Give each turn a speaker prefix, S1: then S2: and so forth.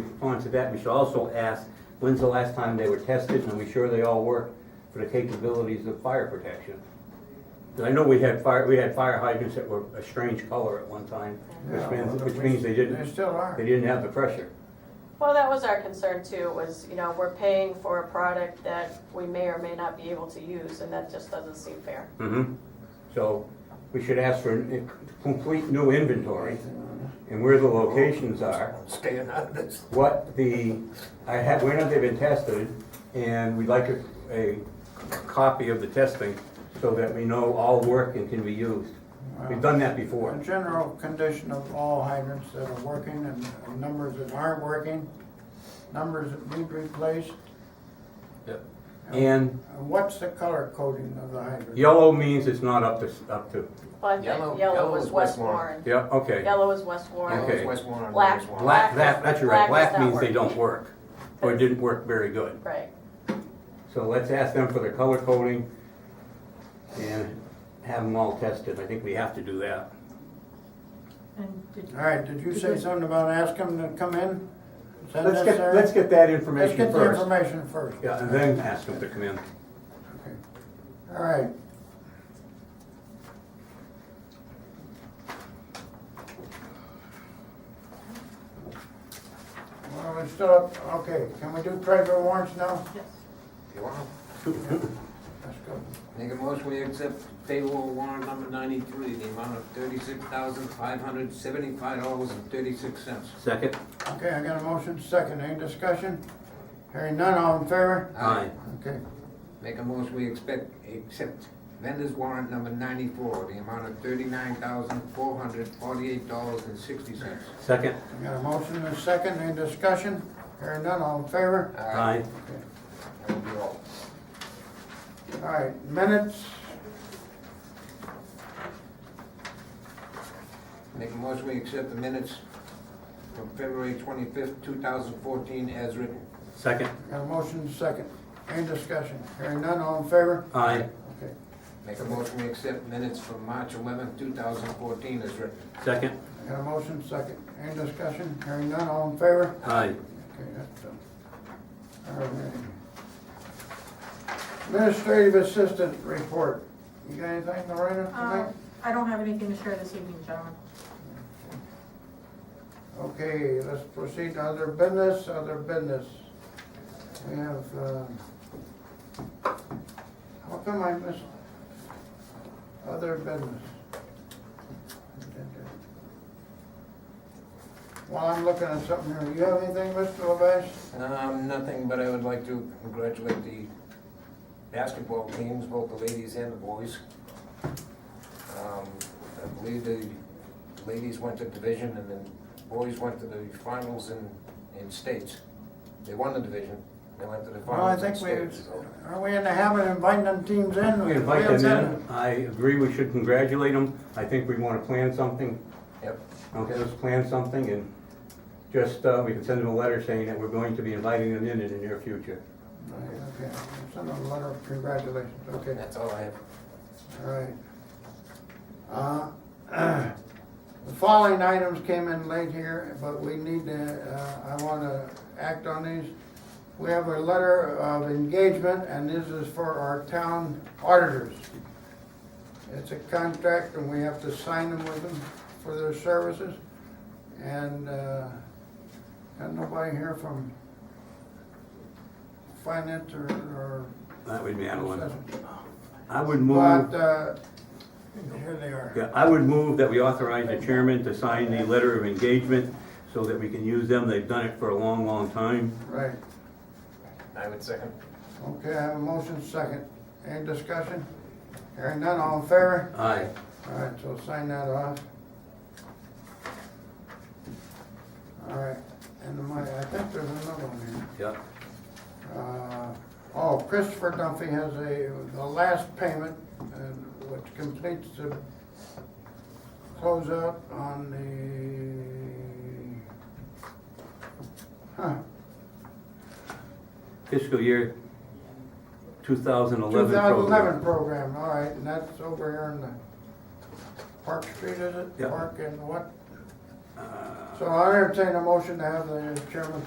S1: to that, we should also ask, when's the last time they were tested, and are we sure they all work for the capabilities of fire protection? 'Cause I know we had fire, we had fire hydrants that were a strange color at one time, which means, which means they
S2: They
S1: didn't,
S2: still are.
S1: they didn't have the pressure.
S3: Well, that was our concern too, was, you know, we're paying for a product that we may or may not be able to use, and that just doesn't seem fair.
S1: Mm-hmm. So we should ask for a complete new inventory and where the locations are,
S2: Staying out of this.
S1: what the, I have, when have they been tested? And we'd like a, a copy of the testing so that we know all work and can be used. We've done that
S2: A
S1: before.
S2: general condition of all hydrants that are working and numbers that aren't working, numbers that need replaced.
S1: Yep. And
S2: And what's the color coding of the hydrant?
S1: yellow means it's not up to, up to,
S3: Well, I think
S4: Yellow-
S3: yellow
S4: yellow
S3: was
S4: is
S3: West
S4: West
S3: Warren.
S1: yeah, okay.
S3: Yellow is West Warren.
S1: Okay.
S4: West Warren and
S3: Black.
S4: Orange Warren.
S1: Black, that, that's your right,
S3: Black is
S1: black
S3: not
S1: means they
S3: working.
S1: don't work, or didn't work very good.
S3: Right.
S1: So let's ask them for their color coding and have them all tested. I think we have to do that.
S5: And did,
S2: All right, did you say something about ask them to come in? Is that
S1: Let's get,
S2: necessary?
S1: let's get that
S2: Let's
S1: information
S2: get the
S1: first.
S2: information first.
S1: Yeah, and then ask them to come in.
S2: Okay. All right. Well, we're still up, okay, can we do treasurer warrants now?
S5: yes,
S4: You want?
S2: Let's go.
S4: Make a motion, we accept payroll warrant number ninety-three, the amount of thirty-six thousand, five hundred, seventy-five dollars and thirty-six cents.
S1: Second?
S2: Okay, I got a motion, second, any discussion? Hearing none, all in favor? Okay,
S4: Make a motion, we expect, accept vendor's warrant number ninety-four, the amount of thirty-nine thousand, four hundred, forty-eight dollars and sixty cents.
S1: Second?
S2: I got a motion and a second, any discussion? Hearing none, all in favor?
S1: Aye.
S4: That will be all.
S2: All right, minutes,
S4: Make a motion, we accept the minutes from February twenty-fifth, two thousand fourteen, as written.
S1: Second?
S2: got a motion, second, any discussion? Hearing none, all in favor?
S1: Aye.
S2: Okay.
S4: Make a motion, we accept minutes from March eleventh, two thousand fourteen, as written.
S1: Second?
S2: Got a motion, second. Any discussion? Hearing none, all in favor?
S1: Aye.
S2: Okay, that's done. All right. Administrative assistant report. You got anything to write up
S5: um,
S2: tonight?
S5: I don't have anything to share this evening, gentlemen.
S2: Okay, let's proceed to other business, other business. We have, uh, how come I missed other business? While I'm looking at something here, you have anything, Mr. Levash?
S4: Um, nothing, but I would like to congratulate the basketball teams, both the ladies and the boys. Um, I believe the ladies went to division and the boys went to the finals in, in states. They won the division, they went to the
S2: Well, I
S4: finals in
S2: think we,
S4: states. so-
S2: are we in the habit of inviting them teams in?
S1: We invite them in. I agree we should congratulate them. I think we want to plan something.
S4: Yep,
S1: Okay, let's plan something and just, uh, we can send them a letter saying that we're going to be inviting them in in the near future.
S2: Right, okay. Send them a letter of congratulations, okay,
S4: that's all I have.
S2: all right. Uh, The following items came in late here, but we need to, uh, I want to act on these. We have a letter of engagement, and this is for our town auditors. It's a contract, and we have to sign them with them for their services. And uh, got nobody here from finance or- or
S1: That would be Adeline.
S2: assessment.
S1: I would move.
S2: But uh, here they are.
S1: Yeah, I would move that we authorize the chairman to sign the letter of engagement so that we can use them. They've done it for a long, long time.
S2: Right,
S4: I would second.
S2: okay, I have a motion second. Any discussion? Hearing none, all in favor?
S1: Aye.
S2: All right, so sign that off. All right, and my, I think there's another one here.
S1: Yeah.
S2: Uh, Oh, Christopher Duffy has a, the last payment, and which completes the closeout on the, huh,
S1: Fiscal year 2011 program.
S2: 2011 program, all right, and that's over here in the Park Street, is it?
S1: Yeah.
S2: Park and what?
S1: Uh,
S2: So I entertain a motion to have the chairman